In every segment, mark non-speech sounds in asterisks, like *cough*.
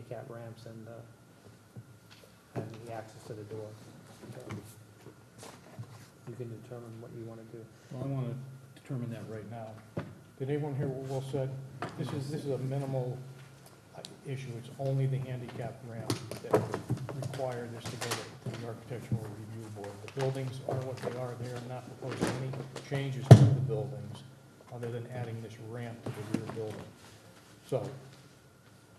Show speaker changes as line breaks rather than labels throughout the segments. handicap ramps and the, and the access to the door. You can determine what you wanna do.
Well, I want to determine that right now. Did anyone hear what Will said? This is, this is a minimal uh, issue. It's only the handicap ramp that require this to go to the architectural review board. The buildings are what they are. They are not proposing any changes to the buildings other than adding this ramp to the rear building. So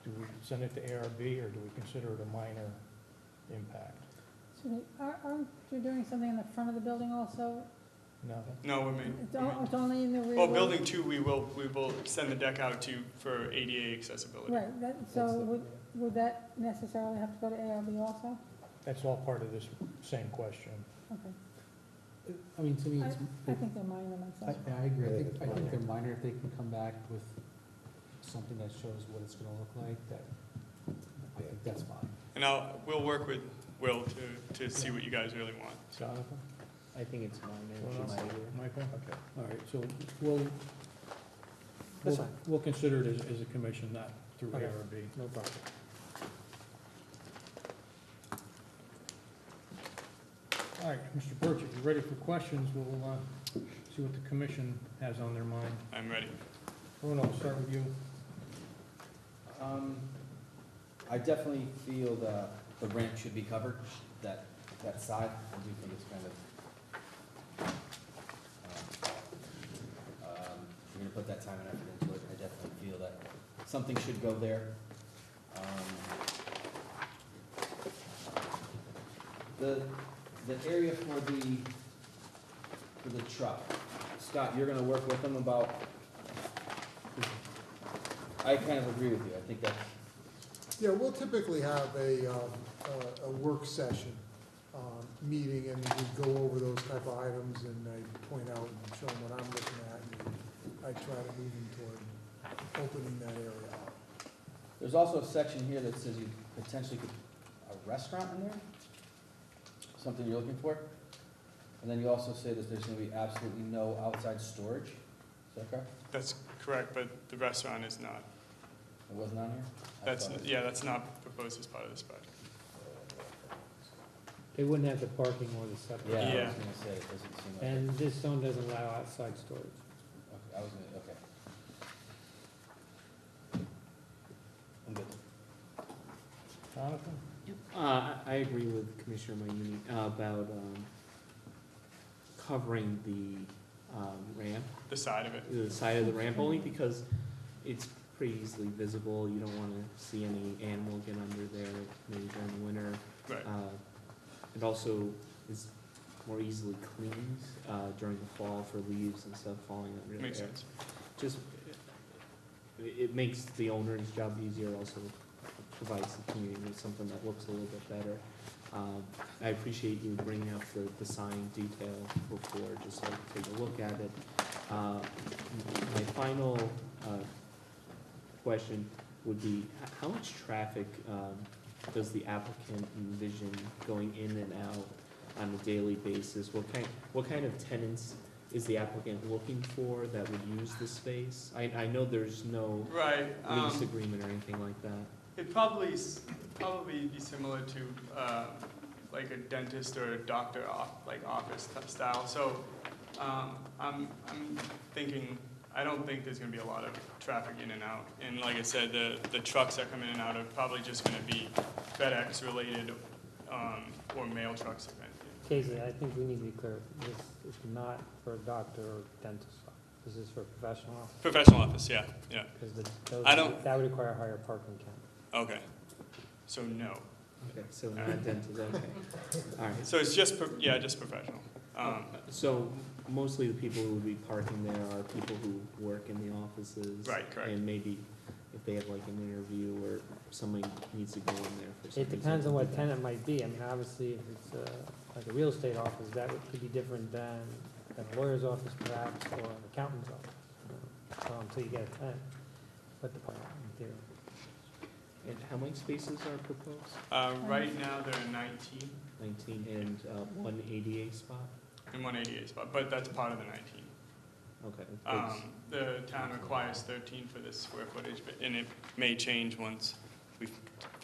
do we send it to ARB or do we consider it a minor impact?
Excuse me, are, are you doing something in the front of the building also?
No?
No, we mean,
It's o- it's only in the rear?
well, building two, we will, we will extend the deck out to, for ADA accessibility.
Right, that, so would, would that necessarily have to go to ARB also?
That's all part of this same question.
Okay,
I mean, to me, it's,
I think they're minor
I,
myself.
I agree, I think, I think they're minor, if they can come back with something that shows what it's gonna look like, that, I think that's fine.
And I'll, we'll work with Will to, to see what you guys really want.
Jonathan?
I think it's
Well,
minor.
that's- Michael?
Okay.
All right, so we'll,
That's
we'll-
fine.
we'll consider it as, as a commission, not through
Okay.
ARB.
No problem.
All right, Mr. Birch, if you're ready for questions, we'll, uh, see what the commission has on their mind.
I'm ready.
Bruno, we'll start with you.
Um, I definitely feel the, the ramp should be covered, that, that side, I do think it's kind of, um, um, if you're gonna put that time and effort into it, I definitely feel that something should go there. Um, The, the area for the, for the truck, Scott, you're gonna work with them about I kind of agree with you, I think that,
Yeah, we'll typically have a, um, a- a work session, um, meeting, and we go over those type of items, and I point out and show them what I'm looking at, and I try to move them toward opening that area up.
there's also a section here that says you potentially could, a restaurant in there? Something you're looking for? And then you also say that there's gonna be absolutely no outside storage, is that correct?
That's correct, but the restaurant is not.
It wasn't on here? I
That's,
thought it was.
yeah, that's not proposed as part of this project.
They wouldn't have the parking or the
Yeah,
septic.
I
Yeah.
was gonna say, it doesn't seem like,
And this zone doesn't allow outside storage.
okay, I was gonna, okay. I'm good.
Jonathan?
Uh, I I agree with Commissioner Mayuni uh, about um, covering the um, ramp,
The side of it.
the side of the ramp, only because it's pretty easily visible. You don't want to see any animal get under there, maybe during the winter.
Right.
Uh, It also is more easily cleaned uh, during the fall for leaves and stuff falling under there.
Makes sense.
Just, it it makes the owner's job easier, also provides the community with something that looks a little bit better. Um, I appreciate you bringing up the, the sign detail before, just so I could take a look at it. Uh, My final uh, question would be, h- how much traffic um, does the applicant envision going in and out on a daily basis? What kind, what kind of tenants is the applicant looking for that would use the space? I, I know there's no
Right,
lease
um,
agreement or anything like that.
it'd probably, s- probably be similar to, um, like a dentist or a doctor off, like office t- style. So, um, I'm, I'm thinking, I don't think there's gonna be a lot of traffic in and out. And like I said, the, the trucks that come in and out are probably just gonna be FedEx related, um, or mail trucks. if anything.
Casey, I think we need to be clear, this is not for a doctor or dentist. This is for professional office,
Professional office, yeah, yeah,
because the, those,
I don't-
that would require a higher parking count.
okay. So no.
Okay, so not dental,
*laughs*
okay. All right,
So it's just, pro- yeah, just professional. Um,
so mostly the people who would be parking there are people who work in the offices.
Right, correct.
And maybe if they have like an interview or somebody needs to go in there for some reason.
It depends on what
they-
tenant might be. I mean, obviously, if it's uh like a real estate office, that would, could be different than, than a lawyer's office perhaps, or an accountant's office. you know, Until you get a tenant, but the parking in theory.
And how many spaces are proposed?
uh, right now, there are nineteen
Nineteen and uh, one ADA spot?
and one eighty-eight spot, but that's part of the nineteen.
Okay. it's-
Um, the town requires thirteen for this square footage, but, and it may change once we